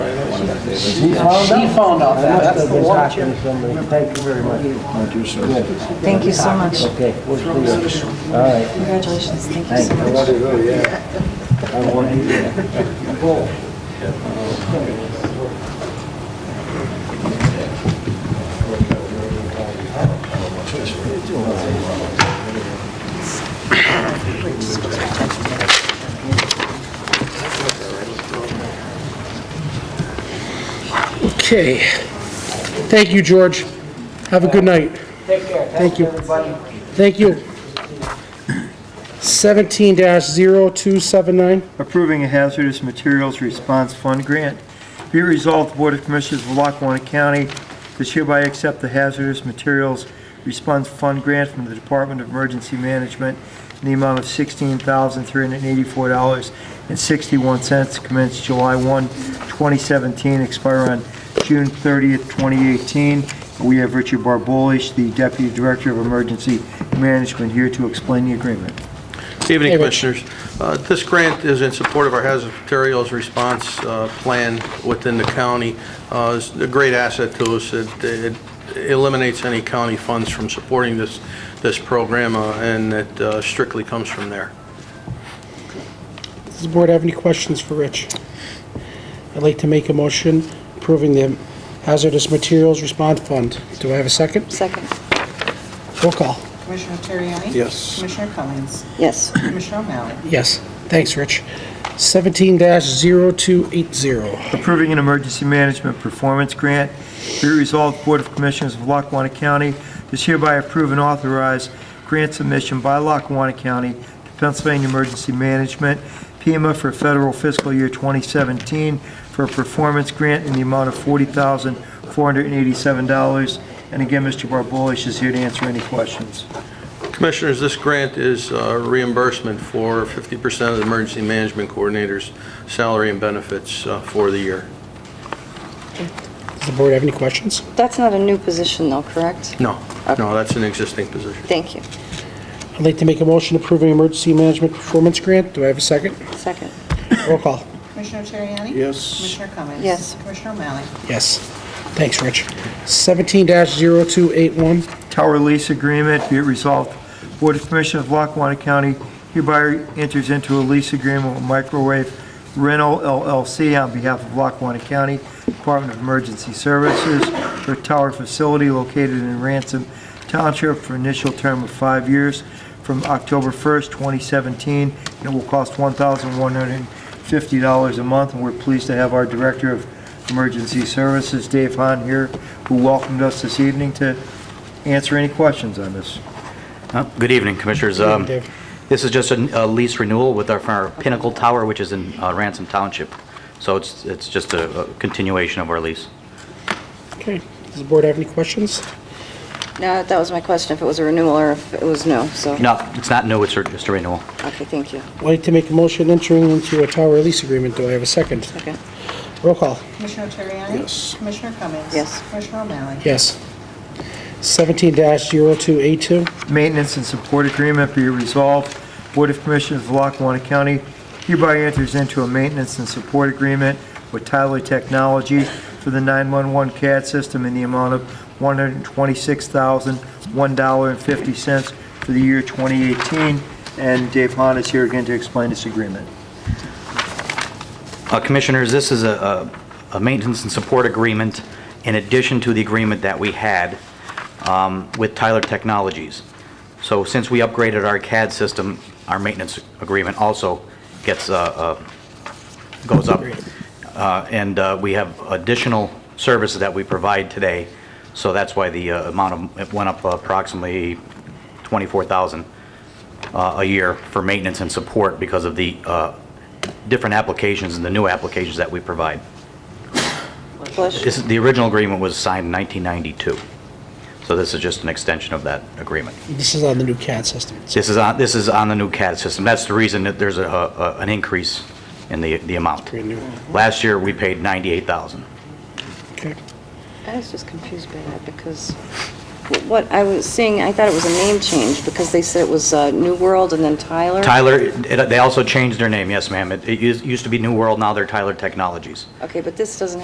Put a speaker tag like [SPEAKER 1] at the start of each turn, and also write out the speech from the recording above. [SPEAKER 1] found that they lived
[SPEAKER 2] She found out that, that's the one.
[SPEAKER 3] That must have been talking to somebody. Thank you very much.
[SPEAKER 4] Thank you, sir.
[SPEAKER 5] Thank you so much.
[SPEAKER 3] Okay, we'll see you. All right.
[SPEAKER 5] Congratulations, thank you so much.
[SPEAKER 3] I want you to-
[SPEAKER 6] Okay. Thank you, George. Have a good night.
[SPEAKER 3] Take care.
[SPEAKER 6] Thank you.
[SPEAKER 3] Everybody.
[SPEAKER 6] Thank you. 17-0279.
[SPEAKER 4] Approving a hazardous materials response fund grant. Be it resolved, the Board of Commissioners of Lackawanna County does hereby accept the hazardous materials response fund grant from the Department of Emergency Management in the amount of $16,384.61 commenced July 1, 2017, expire on June 30th, 2018. We have Richard Barbolish, the Deputy Director of Emergency Management, here to explain the agreement.
[SPEAKER 7] Good Evening,
[SPEAKER 6] Hey, Rich.
[SPEAKER 7] Commissioners. Uh, This grant is in support of our hazardous materials response uh, plan within the county. Uh, It's a great asset to us. It it eliminates any county funds from supporting this, this program, uh, and it uh, strictly comes from there.
[SPEAKER 6] Does the board have any questions for Rich? I'd like to make a motion approving the hazardous materials response fund. Do I have a second?
[SPEAKER 5] Second,
[SPEAKER 6] Roll call.
[SPEAKER 8] Commissioner Terriani?
[SPEAKER 7] Yes.
[SPEAKER 8] Commissioner Cummings?
[SPEAKER 5] yes.
[SPEAKER 8] Commissioner O'Malley?
[SPEAKER 6] Yes. Thanks, Rich. 17-0280.
[SPEAKER 4] approving an emergency management performance grant. Be it resolved, the Board of Commissioners of Lackawanna County does hereby approve and authorize grant submission by Lackawanna County to Pennsylvania Emergency Management, PEMA, for federal fiscal year 2017 for a performance grant in the amount of $40,487. And again, Mr. Barbolish is here to answer any questions.
[SPEAKER 7] Commissioners, this grant is uh, reimbursement for 50% of the emergency management coordinator's salary and benefits uh, for the year.
[SPEAKER 6] Does the board have any questions?
[SPEAKER 5] That's not a new position though, correct?
[SPEAKER 7] No,
[SPEAKER 6] Uh,
[SPEAKER 7] no, that's an existing position.
[SPEAKER 5] Thank you.
[SPEAKER 6] I'd like to make a motion approving emergency management performance grant. Do I have a second?
[SPEAKER 5] Second,
[SPEAKER 6] Roll call.
[SPEAKER 8] Commissioner Terriani?
[SPEAKER 7] Yes.
[SPEAKER 8] Commissioner Cummings?
[SPEAKER 5] Yes.
[SPEAKER 8] Commissioner O'Malley?
[SPEAKER 6] Yes. Thanks, Rich. 17-0281.
[SPEAKER 4] tower lease agreement, be it resolved, Board of Commissioners of Lackawanna County hereby enters into a lease agreement with Microwave Rental LLC on behalf of Lackawanna County Department of Emergency Services for a tower facility located in Ransom Township for initial term of five years from October 1st, 2017, and it will cost $1,150 a month, and we're pleased to have our Director of Emergency Services, Dave Hahn, here, who welcomed us this evening to answer any questions on this.
[SPEAKER 9] Uh, Good evening, Commissioners. Um,
[SPEAKER 6] Dave.
[SPEAKER 9] This is just a a lease renewal with our our Pinnacle Tower, which is in uh, Ransom Township. So it's it's just a a continuation of our lease.
[SPEAKER 6] Okay. Does the board have any questions?
[SPEAKER 5] no, that was my question, if it was a renewal or if it was new, so,
[SPEAKER 9] No, it's not new, it's a- just a renewal.
[SPEAKER 5] okay, thank you.
[SPEAKER 6] I'd like to make a motion entering into a tower lease agreement. Do I have a second?
[SPEAKER 5] Second,
[SPEAKER 6] Roll call.
[SPEAKER 8] Commissioner Terriani? Yes. Commissioner Cummings?
[SPEAKER 5] Yes.
[SPEAKER 8] Commissioner O'Malley?
[SPEAKER 6] Yes. 17-0282.
[SPEAKER 4] Maintenance and support agreement be resolved. Board of Commissioners of Lackawanna County hereby enters into a maintenance and support agreement with Tyler Technology for the 911 CAD system in the amount of $126,001.50 for the year 2018. And Dave Hahn is here again to explain this agreement.
[SPEAKER 9] Uh, Commissioners, this is a a- a maintenance and support agreement in addition to the agreement that we had um, with Tyler Technologies. So since we upgraded our CAD system, our maintenance agreement also gets, uh, uh, goes up. Uh, And uh, we have additional services that we provide today, so that's why the uh, amount of, it went up approximately 24,000 uh, a year for maintenance and support because of the uh, different applications and the new applications that we provide.
[SPEAKER 5] Bush?
[SPEAKER 9] This, the original agreement was signed in 1992, so this is just an extension of that agreement.
[SPEAKER 6] This is on the new CAD system.
[SPEAKER 9] This is on, this is on the new CAD system. That's the reason that there's a, a- an increase in the, the amount.
[SPEAKER 6] Brand new.
[SPEAKER 9] Last year, we paid 98,000.
[SPEAKER 6] Okay.
[SPEAKER 5] I was just confused by that because what I was seeing, I thought it was a name change because they said it was uh, New World and then Tyler.
[SPEAKER 9] Tyler, it- they also changed their name, yes, ma'am. It, it used used to be New World, now they're Tyler Technologies.
[SPEAKER 5] Okay, but this doesn't